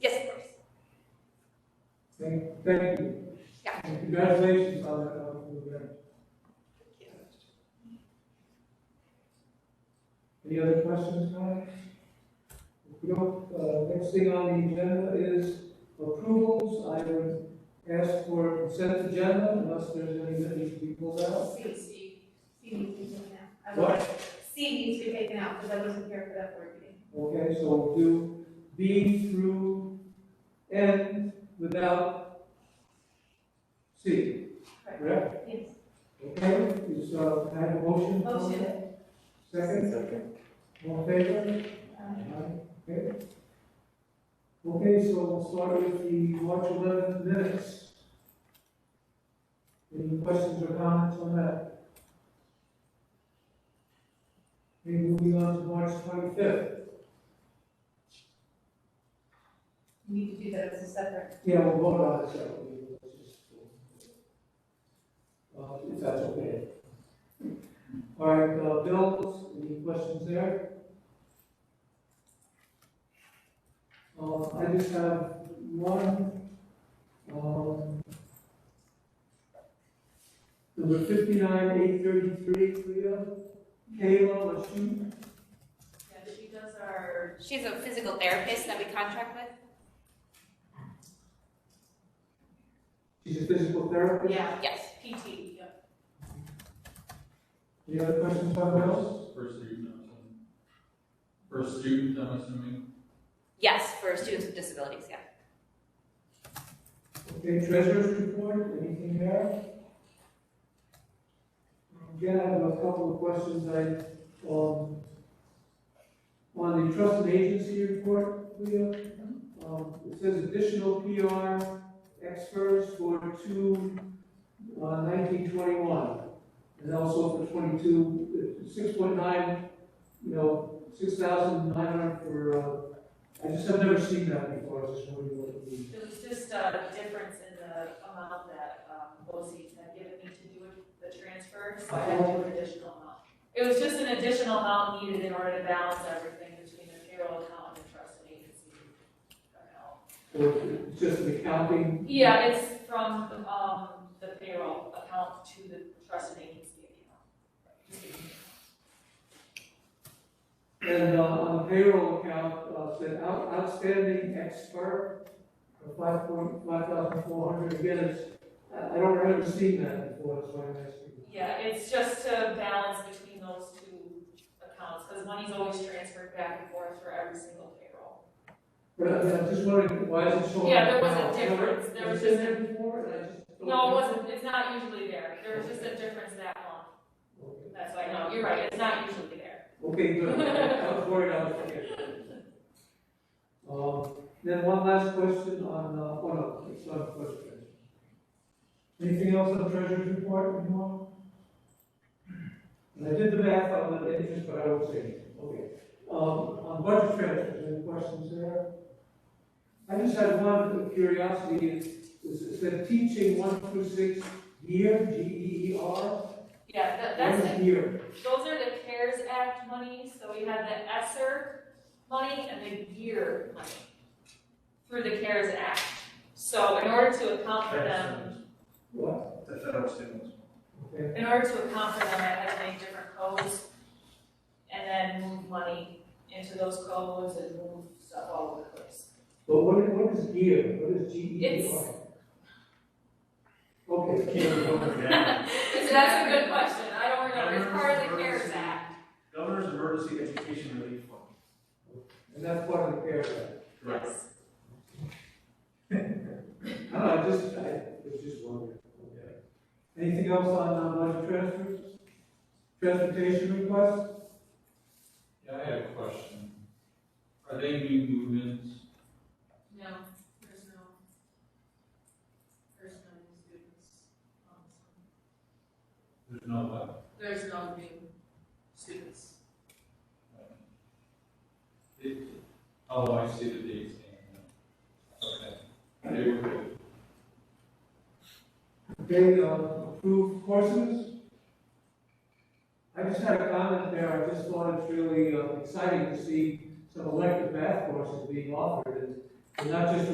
Thank, thank you. Yeah. And Congratulations on that, on the event. Any other questions, comments? If we don't, uh, next thing on the agenda is approvals. I would ask for consent agenda unless there's any that need to be pulled out. C, C, C needs to be taken out. I What? was- C needs to be taken out, because I wasn't here for that board meeting. Okay, so we'll do B through N without C, correct? Yes. Okay, is, uh, can I have a motion? Motion. Second? Second. All in favor? Um, Okay. Okay, so we'll start with the March eleventh minutes. Any questions or comments on that? Okay, moving on to March twenty-fifth. You need to do that as a separate. Yeah, we'll vote on it separately. Let's just, uh, If that's okay. All right, uh, bills, any questions there? Uh, I just have one, um, number fifty-nine, eight thirty-three, Cleo, Kayla, Lashun. Yeah, she does our. She's a physical therapist that we contract with. she's a physical therapist. Yeah, Yes. PT, yep. Any other questions on bills? Per student, I'm assuming. Per student, I'm assuming. Yes, for students with disabilities, yeah. Okay, treasurer's report, anything there? Again, I have a couple of questions, I, um, on the trust and agency report, Leah, um, it says additional PR experts for two, uh, nineteen twenty-one, and also for twenty-two, six point nine, you know, six thousand nine hundred for, uh, I just have never seen that before, I was just wondering what it means. It was just a difference in the amount that um, BOSI's had given me to do with the transfer, so I had to do an additional amount. It was just an additional amount needed in order to balance everything between the payroll account and the trust and agency account. Or it's just an accounting? Yeah, it's from um, the payroll account to the trust and agency account. And uh, on the payroll account, uh, said out- outstanding expert, five point, five thousand four hundred, again, it's, I I don't remember seeing that before, that's why I'm asking. Yeah, it's just to balance between those two accounts, because money's always transferred back and forth for every single payroll. But I- I'm just wondering, why is it showing? Yeah, there was a now? I've never- difference. There was I've seen just a- that before, and I just. don't- No, it wasn't, it's not usually there, there was just a difference that long, Okay. that's why, no, you're right, it's not usually there. Okay, good. I was worried I was forgetting. Um, Then one last question on, uh, oh no, it's not a question. Anything else on treasurer's report, anyone? And I did the math on the interest, but I don't say it. Okay. Um, On budget transfers, any questions there? I just had one curiosity, is, is is the teaching one through six year, G E E R? Yeah, that, What that's, is year? it. those are the CARES Act money, so we had the ESSER money and the GEAR money through the CARES Act. So in order to account for them, What? The federal stimulus. Okay. in order to account for them, I had to make different codes and then move money into those codes and move stuff all over the place. But what, what is gear? What is G E A It's- R? Okay. That's a good question, I don't remember, it's part of the CARES Act. Governor's Emergency Education Relief Fund. And that's part of the care Act. Yes. I don't know, I just, I was just wondering. Okay. Anything else on, uh budget transfers? Transportation requests? Yeah, I have a question. Are they new movements? No, there's no, there's no new students. um, There's no what? There's no new students. It- Oh, I see the dates. Okay. They were good. Okay, uh, approved courses? I just had a comment there, I just thought it's really uh, exciting to see some elective math courses being offered, and- and not just